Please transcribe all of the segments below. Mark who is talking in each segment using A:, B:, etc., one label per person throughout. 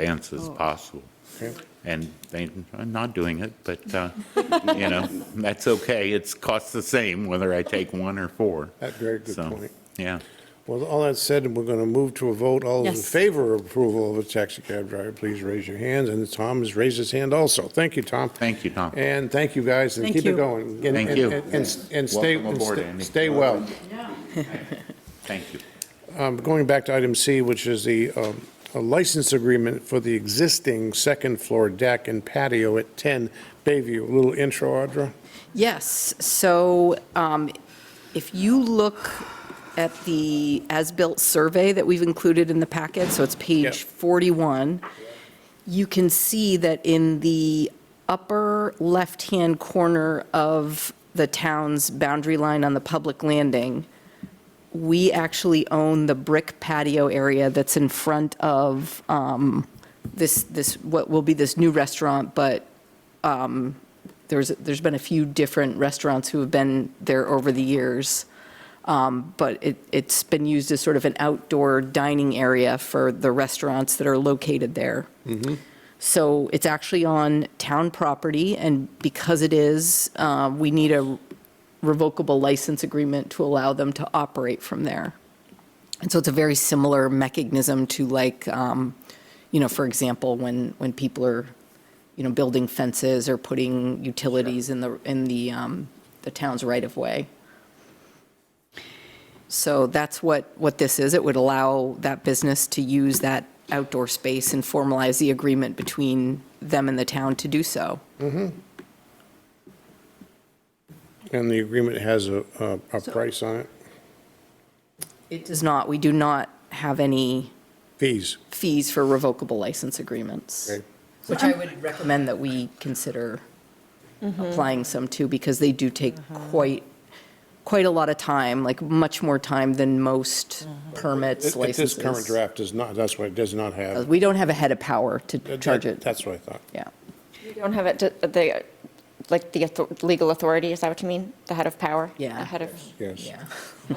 A: advance as possible. And they are not doing it, but, uh, you know, that's okay. It's costs the same whether I take one or four.
B: That's a very good
A: So,
B: point.
A: Yeah.
B: Well, all that said, we're going to move to a vote. All those in
C: Yes.
B: favor of approval of a taxi cab driver, please raise your hands. And Tom has raised his hand also. Thank you, Tom.
A: Thank you, Tom.
B: And thank you, guys, and
C: Thank
B: keep it
C: you.
B: going. And-
A: Thank
B: and-
A: you.
B: And, and- and stay,
A: Welcome
B: and
A: aboard,
B: stay-
A: Andy.
B: stay well.
A: Thank you.
B: Um, Going back to item C, which is the um, a license agreement for the existing second-floor deck and patio at 10 Bayview. A Little intro, Audra?
C: Yes, so um, if you look at the as-built survey that we've included in the packet, so it's page
B: Yeah.
C: 41, you can see that in the upper left-hand corner of the town's boundary line on the public landing, we actually own the brick patio area that's in front of um, this, this, what will be this new restaurant, but there's, there's been a few different restaurants who have been there over the years. Um, But it, it's been used as sort of an outdoor dining area for the restaurants that are located there. So it's actually on town property, and because it is, uh, we need a revocable license agreement to allow them to operate from there. And so it's a very similar mechanism to like, um, you know, for example, when, when people are, you know, building fences or putting utilities in the, in the, um, the town's right of way. So that's what, what this is. It would allow that business to use that outdoor space and formalize the agreement between them and the town to do so.
B: And the agreement has a, a- a
C: So-
B: price on it?
C: It does not, we do not have any
B: Fees.
C: fees for revocable license agreements.
B: Okay.
C: Which I would recommend that we consider
D: Mm-hmm.
C: applying some to, because they do take quite, quite a lot of time, like much more time than most
D: Mm-hmm.
C: permits,
B: It- it- This
C: licenses.
B: current draft does not, that's what it does not have.
C: We don't have a head of power to
B: That-
C: charge it,
B: That's what I thought.
C: yeah.
E: You don't have it, to- the, like, the author- legal authority, is that what you mean? The head of power?
C: Yeah.
E: The head of,
B: Yes.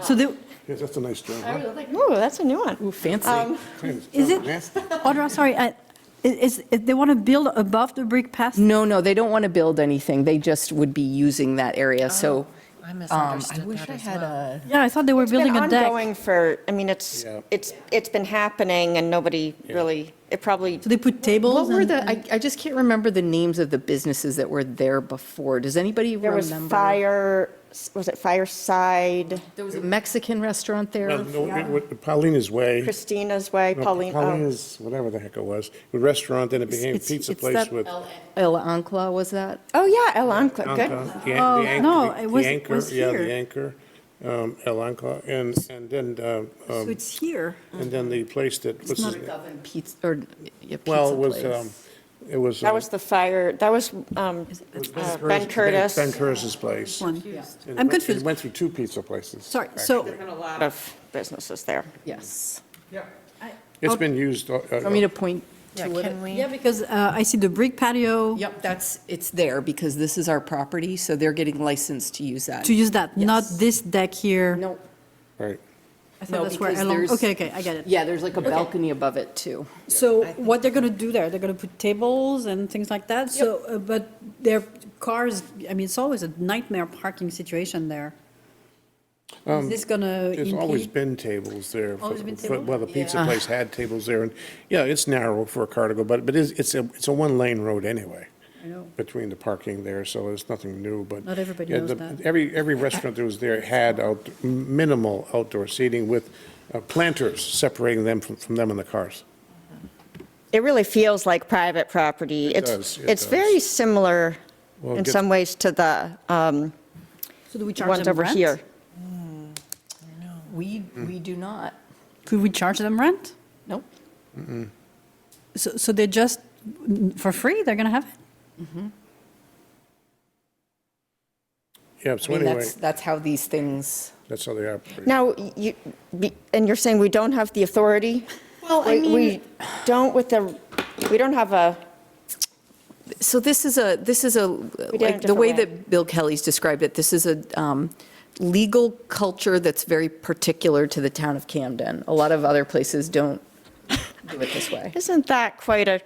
C: So there,
B: Yes, that's a nice term.
E: I
F: Oh,
B: huh?
E: was like, ooh, that's a new one.
C: ooh,
D: Um,
C: fancy.
F: Uh, Is it,
B: Nasty.
F: Audra, sorry, I- is, is- they want to build above the brick path?
C: No, no, they don't want to build anything, they just would be using that area, so.
D: Oh, I
C: um,
D: misunderstood
C: I wish
D: that
C: I
D: as
C: had
D: well.
C: a,
F: Yeah, I thought they were
E: It's been
F: building a deck.
E: ongoing for, I mean, it's,
B: Yeah.
E: it's, it's been happening and nobody really, it probably,
F: So they put tables
C: what were
F: and-
C: the, I, I just can't remember the names of the businesses that were there before, does anybody
E: there
C: remember?
E: was fire, was it Fireside,
C: There was a Mexican restaurant
B: No,
C: there.
B: no, it- what- Paulina's Way.
E: Christina's Way,
B: no,
E: Pauline, oh,
B: Paulina's, whatever the heck it was, a restaurant, then it became
F: it's-
B: pizza
F: it's
B: place
F: that-
B: with.
C: El Ancla, was that?
E: oh, yeah, El Ancla,
B: Anca,
E: good.
B: the an-
F: Oh,
B: the anch-
F: no,
B: the-
F: it was-
B: the
F: it
B: anchor,
F: was
B: Yeah, the
F: here.
B: anchor, um, El Anca, and, and then, uh,
F: So
B: um,
F: it's here.
B: and then the place that, what's his
F: not
B: name?
C: Oven Pizza, or, yeah, pizza
B: Well, it was,
C: place.
B: um, it was.
E: That
B: um,
E: was the fire, that was um, uh, Ben Curtis.
B: Ben Curtis's place.
F: One.
B: And it
F: I'm
B: went- It
F: confused.
B: went through two pizza places.
F: Sorry,
B: actually.
F: so,
E: There's been a lot of businesses there.
C: Yes.
B: It's been used. uh, uh,
C: Want me to point to
D: can
C: it?
D: we-
F: yeah, because uh, I see the brick patio
C: Yep, that's, it's there, because this is our property, so they're getting licensed to use that.
F: to use that, not
C: Yes.
F: this deck here.
C: No,
B: Right.
F: I thought
C: no,
F: that's where
C: because
F: along-
C: there's.
F: Okay, okay, I get it.
C: Yeah, there's like a balcony above it, too.
F: So what they're going to do there, they're going to put tables and things like that? So, uh, but their cars, I mean, it's always a nightmare parking situation there. Is this going to impede?
B: Um, There's always been tables there. for-
F: Always been
B: for-
F: tables?
B: Well, the pizza place had tables there, and, yeah, it's narrow for a car to go, but, but it's, it's a, it's a one-lane road anyway.
F: I know.
B: Between the parking there, so it's nothing new, but.
F: Not everybody
B: yeah,
F: knows
B: the-
F: that.
B: Every, every restaurant that was there had out, minimal outdoor seating with uh, planters separating them from, from them and the cars.
E: It really feels like private property.
B: It
E: It's-
B: does, it
E: It's
B: does.
E: very similar
B: Well, it
E: in
B: gets-
E: some ways to the um,
F: So do we charge
E: ones
F: them
E: over
F: rent?
E: here.
C: We, we do not.
F: Could we charge them rent?
C: Nope.
F: So, so they just, for free, they're going to have it?
B: Yeah,
C: I
B: so
C: mean,
B: anyway,
C: that's, that's how these things.
B: that's how they operate.
E: Now, you, be- and you're saying we don't have the authority? Well,
C: I
E: We don't with the, we don't have a,
C: So this is a, this is a, like, the
E: different
C: way
E: way.
C: that Bill Kelly's described it, this is a um, legal culture that's very particular to the town of Camden. A lot of other places don't do it this way.
E: Isn't that quite a